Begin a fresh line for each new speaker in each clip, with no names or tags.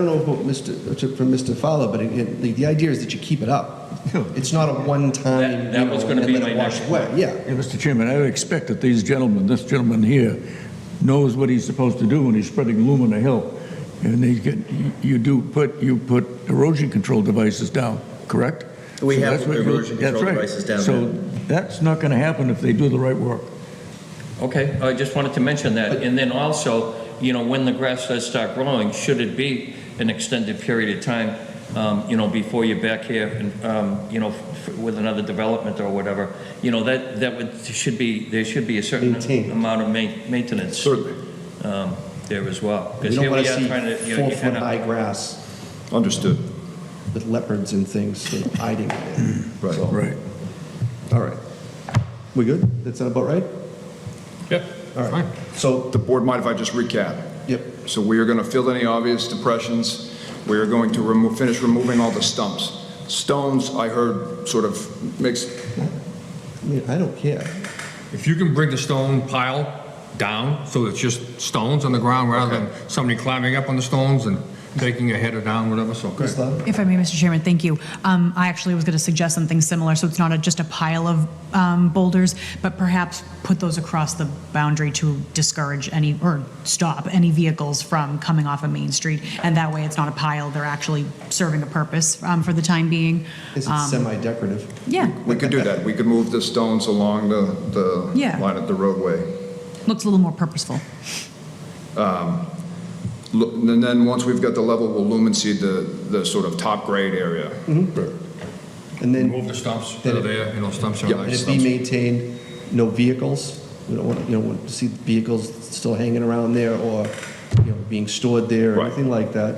I don't know about Mr. took from Mr. Fowler, but it, it, the, the idea is that you keep it up. It's not a one-time.
That- that
you
was
know,
gonna
and
be
let
my
it wash
next
away.
point.
Yeah.
Yeah, Mr. Chairman, I would expect that these gentlemen, this gentleman here, knows what he's supposed to do when he's spreading loom on a hill. And they get, you do put, you put erosion control devices down, correct?
We
So
have
that's what you-
erosion control
that's right.
devices down
So that's not going to happen if they do the right work.
Okay, I just wanted to mention that. And then also, you know, when the grass does start growing, should it be an extended period of time, um, you know, before you're back here and, um, you know, f- with another development or whatever, you know, that, that would, should be, there should be a certain
Maintained.
amount of ma- maintenance.
Certainly.
um, There as well.
You
Because
don't
here
want
we
to
are
see
trying to, you know, you kind of.
four-foot-high grass
Understood.
with leopards and things sort of hiding it.
Right.
So,
Right.
All right. We good? That's about right?
Yep.
All right.
fine.
So,
The board mind if I just recap?
yep,
So we are going to fill any obvious depressions. We are going to remo finish removing all the stumps. Stones, I heard sort of mixed,
I mean, I don't care.
If you can bring the stone pile down, so it's just stones on the ground rather than somebody climbing up on the stones and taking a header down, whatever, so.
Ms. Love?
If I may, Mr. Chairman, thank you. Um, I actually was going to suggest something similar, so it's not a- just a pile of um, boulders, but perhaps put those across the boundary to discourage any, or stop any vehicles from coming off of Main Street. And that way, it's not a pile, they're actually serving a purpose um, for the time being.
Is it semi-decorative?
Yeah,
we could do that. We could move the stones along the, the
Yeah.
line of the roadway.
looks a little more purposeful.
Lu- And then, once we've got the level, we'll lumen seed the, the sort of top grade area.
And then,
Remove the stumps that are there, you know, stumps are
Yeah,
nice
and it
stumps.
be maintained, no vehicles? We don't want, you know, want to see vehicles still hanging around there or, you know, being stored there or
Right.
anything like that.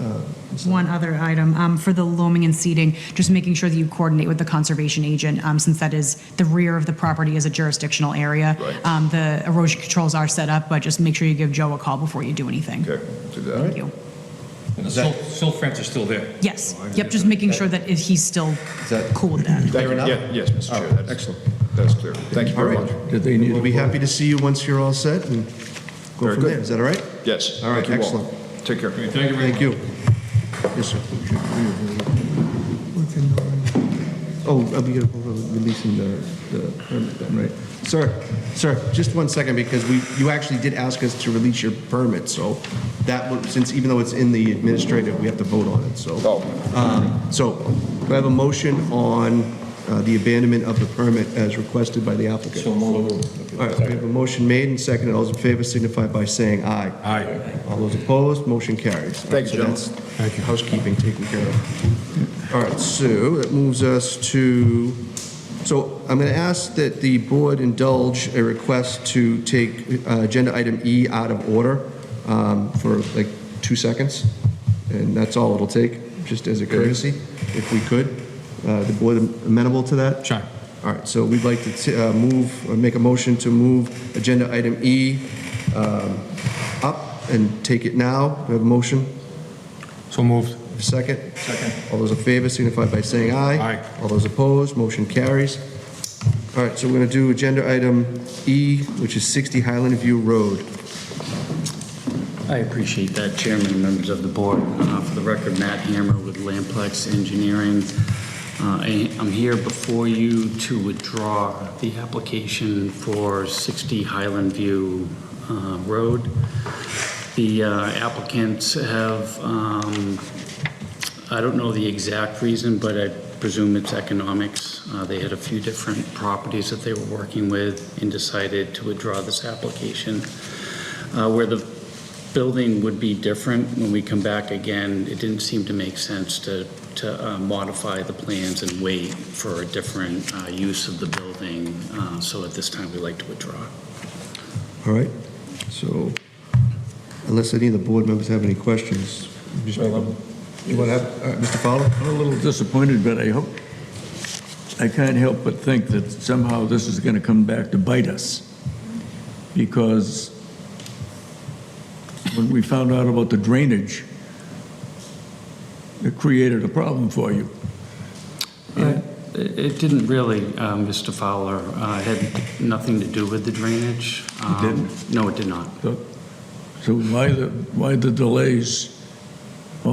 Uh,
One other item, um, for the loaming and seeding, just making sure that you coordinate with the conservation agent, um, since that is, the rear of the property is a jurisdictional area.
Right.
Um, the erosion controls are set up, but just make sure you give Joe a call before you do anything.
Okay, do that.
Thank you.
And The silt silt fence is still there.
Yes, yep, just making sure that if he's still
that-
cool with that.
Thank you.
Fair enough?
Yeah, Yes, Mr. Chair, that's excellent. That's clear. Thank you very
All right.
much.
That they need.
We'll be happy to see you once you're all set and go
Very
from
good.
there. Is that all right?
Yes.
All right,
thank you
excellent.
Take care.
Thank you very much.
Thank you. Yes, sir. Oh, uh, we gotta vote on releasing the, the permit then, right? Sir, sir, just one second, because we, you actually did ask us to release your permit, so that, would- since even though it's in the administrative, we have to vote on it, so. Um,
Oh,
So, we have a motion on uh, the abandonment of the permit as requested by the applicant. So All right, we have a motion made and seconded. All those in favor signify by saying aye.
Aye.
All those opposed, motion carries.
Thank you,
So
gentlemen.
that's Housekeeping taken care of. All right, so that moves us to, so I'm going to ask that the board indulge a request to take uh, agenda item E out of order um, for like two seconds, and that's all it'll take, just as a courtesy, if we could. Uh, The board amenable to that?
Sure.
All right, so we'd like to t- uh, move, or make a motion to move agenda item E um, up and take it now. Do we have a motion?
So moved.
A second? Second. All those in favor signify by saying aye.
Aye.
All those opposed, motion carries. All right, so we're going to do agenda item E, which is 60 Highland View Road.
I appreciate that, Chairman and members of the board. Uh, For the record, Matt Hammer with Lamplex Engineering. Uh, I- I'm here before you to withdraw the application for 60 Highland View uh, Road. The uh, applicants have um, I don't know the exact reason, but I presume it's economics. Uh, They had a few different properties that they were working with and decided to withdraw this application. Uh, Where the building would be different, when we come back again, it didn't seem to make sense to to uh, modify the plans and wait for a different uh, use of the building. Uh, So at this time, we'd like to withdraw.
All right, so unless any of the board members have any questions. just- You want to have, uh, all right, Mr. Fowler?
I'm a little disappointed, but I hope, I can't help but think that somehow this is going to come back to bite us. Because when we found out about the drainage, it created a problem for you.
It it didn't really, uh, Mr. Fowler. Uh, It had nothing to do with the drainage. Um,
didn't?
No, it did not.
So so why the, why the delays?